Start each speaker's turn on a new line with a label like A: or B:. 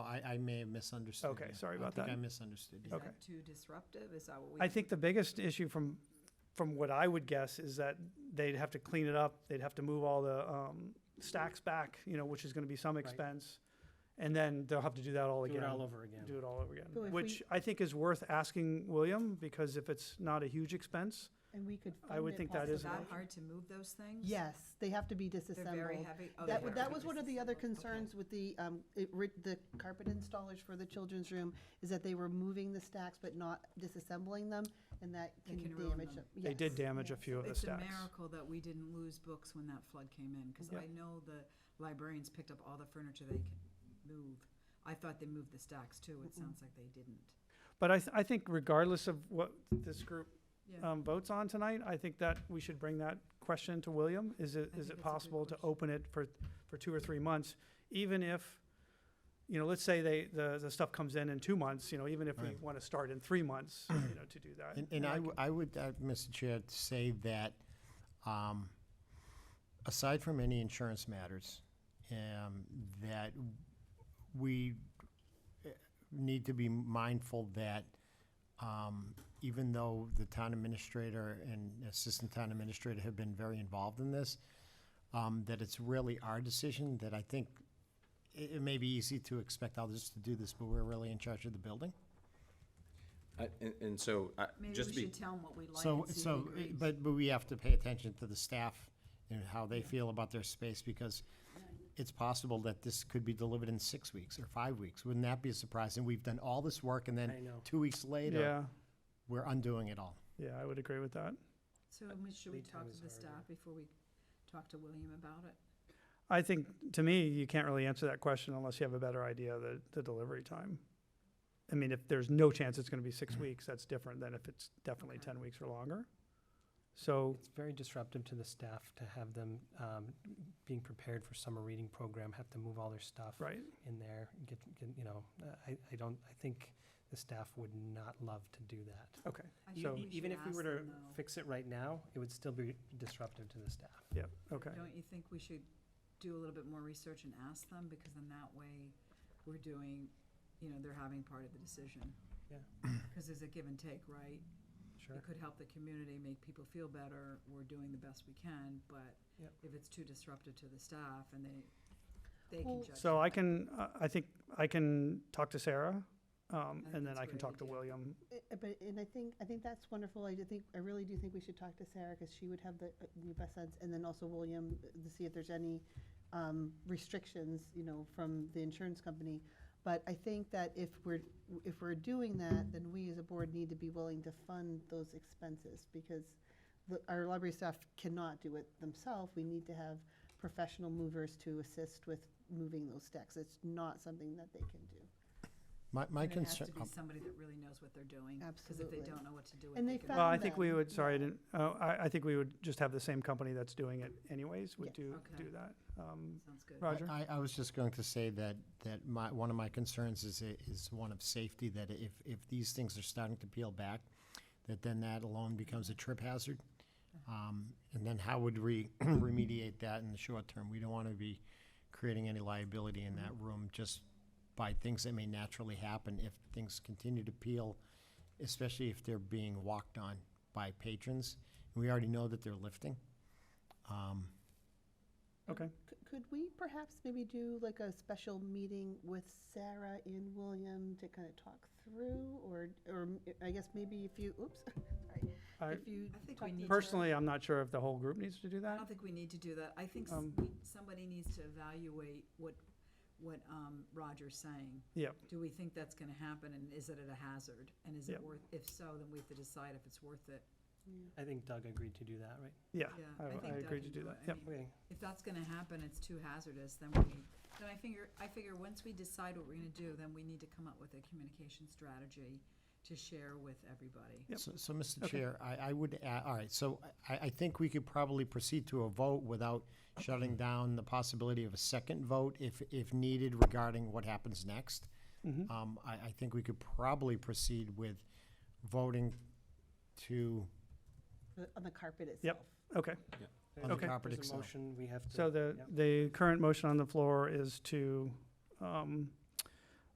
A: I, I may have misunderstood.
B: Okay,
A: you.
B: sorry
A: I
B: about
A: think
B: that.
A: I misunderstood you.
B: Okay.
C: Not Too disruptive, is that what we?
B: I think the biggest issue from, from what I would guess is that they'd have to clean it up, they'd have to move all the, um, stacks back, you know, which is gonna be some expense. And then they'll have to do that all
D: Do
B: again.
D: it all over again.
B: Do it all over
C: So
B: again,
C: if
B: which I think is worth asking William, because if it's not a huge expense,
E: And we could
B: I would think
E: fund it
C: Is
B: that
C: it
B: is an
C: that
B: option.
C: hard to move those things?
E: Yes, they have to be
C: They're very
E: disassembled.
C: heavy. Oh, they
E: That,
C: have
E: w-
C: to
E: that
C: be
E: was one of the other
C: disassembled. Okay.
E: concerns with the, um, it, rid- the carpet installers for the children's room, is that they were moving the stacks but not disassembling them, and that
C: They
E: can
C: can ruin
E: damage
C: them.
E: them.
B: they did
E: Yes.
B: damage a few of the
C: It's a
B: stacks.
C: miracle that we didn't lose books when that flood came in, because
B: Yeah.
C: I know the librarians picked up all the furniture they could move. I thought they moved the stacks too, it sounds like they didn't.
B: But I, th- I think regardless of what this group
C: Yeah.
B: um, votes on tonight, I think that we should bring that question to William. Is it,
C: I
B: is
C: think it's a
B: it
C: good
B: possible to
C: question.
B: open it for, for two or three months? Even if, you know, let's say they, the, the stuff comes in in two months, you know, even if we
A: Right.
B: want to start in three months, you know, to do that.
A: And, and I,
B: c-
A: w- I would, uh, Mr. Chair, say that, um, aside from any insurance matters, um, that we eh, need to be mindful that, um, even though the town administrator and assistant town administrator have been very involved in this, um, that it's really our decision, that I think it, it may be easy to expect others to do this, but we're really in charge of the building.
F: I- And, and so, I-
C: Maybe
F: just
C: we
F: to be,
C: should tell them what we like
A: So,
C: and see if
A: so,
C: he
A: uh,
B: eh,
C: agrees.
A: but, but we have to pay attention to the staff and how they feel about their space, because it's possible that this could be delivered in six weeks or five weeks. Wouldn't that be a surprise? And we've done all this work, and
D: I
A: then
D: know.
A: two weeks later,
B: Yeah,
A: we're undoing it all.
B: yeah, I would agree with that.
C: So we- should we
D: Lead time
C: talk
D: is
C: to the
D: hard, yeah.
C: staff before we talk to William about it?
B: I think, to me, you can't really answer that question unless you have a better idea of the, the delivery time. I mean, if there's no chance it's gonna be six weeks, that's different than if it's definitely
C: Okay.
B: ten weeks or longer. So,
D: It's very disruptive to the staff to have them um, being prepared for summer reading program, have to move all their stuff
B: right,
D: in there, get, get, you know, uh, I, I don't, I think the staff would not love to do that.
B: okay,
C: I
D: E-
C: think
B: So-
C: we
D: e- Even
C: should
D: if we
C: ask
D: were to
C: them, though.
D: fix it right now, it would still be disruptive to the staff.
B: yep, okay.
C: Don't you think we should do a little bit more research and ask them, because then that way, we're doing, you know, they're having part of the decision.
D: Yeah.
C: Because there's a give and take, right?
D: Sure.
C: It could help the community, make people feel better, we're doing the best we can, but
D: Yep.
C: if it's too disruptive to the staff and they, they can
E: Well-
C: judge.
B: So I
C: that.
B: can, uh, I think I can talk to Sarah, um,
C: I think
B: and then
C: that's
B: I
C: a
B: can
C: great
B: talk to
C: idea.
B: William.
E: Uh, But, and I think, I think that's wonderful. I do think, I really do think we should talk to Sarah, because she would have the, uh, the best sense, and then also William, uh, to see if there's any um, restrictions, you know, from the insurance company. But I think that if we're, if we're doing that, then we as a board need to be willing to fund those expenses, because the, our library staff cannot do it themselves. We need to have professional movers to assist with moving those stacks. It's not something that they can do.
A: My, my
C: And it has
A: concern,
C: to be somebody that really knows what they're doing. Because if
E: Absolutely.
C: they don't know what to do with it.
E: And they
C: can-
B: Well, I
E: Found
B: think we
E: them,
B: would, sorry, I didn't, uh, I, I think we would just have the same company that's doing it anyways, would
E: Yes.
B: do,
C: Okay.
B: do that. Um,
C: Sounds good.
B: Roger?
A: I, I was just going to say that, that my, one of my concerns is, i- is one of safety, that if, if these things are starting to peel back, that then that alone becomes a trip hazard. Um, and then how would we remediate that in the short term? We don't want to be creating any liability in that room just by things that may naturally happen if things continue to peel, especially if they're being walked on by patrons. We already know that they're lifting. Um,
B: Okay,
E: C- Could we perhaps maybe do like a special meeting with Sarah and William to kind of talk through, or, or m- I guess maybe if you, oops,
B: I,
E: sorry. If you
C: I think
E: talk
C: we
E: to
C: need to-
E: Sarah-
B: personally, I'm not sure if the whole group needs to do
C: I
B: that.
C: don't think we need to do that. I think s-
B: Um,
C: we- somebody needs to evaluate what, what um, Roger's saying.
B: Yep.
C: Do we think that's gonna happen, and is it at a hazard? And is
B: Yep.
C: it worth, if so, then we have to decide if it's worth it.
D: I think Doug agreed to do that, right?
B: Yeah,
C: Yeah,
B: I-
C: I
B: I
C: think
B: agree
C: Doug
B: to
C: can
B: do
C: do
B: that,
C: it. I
B: yep.
C: mean,
D: Okay.
C: If that's gonna happen, it's too hazardous, then we, need- then I figure, I figure, once we decide what we're gonna do, then we need to come up with a communication strategy to share with everybody.
B: Yep.
A: So, so, Mr.
B: Okay.
A: Chair, I, I would, a- all right, so I, I think we could probably proceed to a vote without shutting down the possibility of a second vote if, if needed regarding what happens next.
B: Mhm.
A: Um, I, I think we could probably proceed with voting to,
E: uh, On the carpet itself.
B: Okay,
A: on the
B: Okay.
A: carpet
D: There's a
A: itself.
D: motion, we have to.
B: so the,
D: yep.
B: the current motion on the floor is to, um,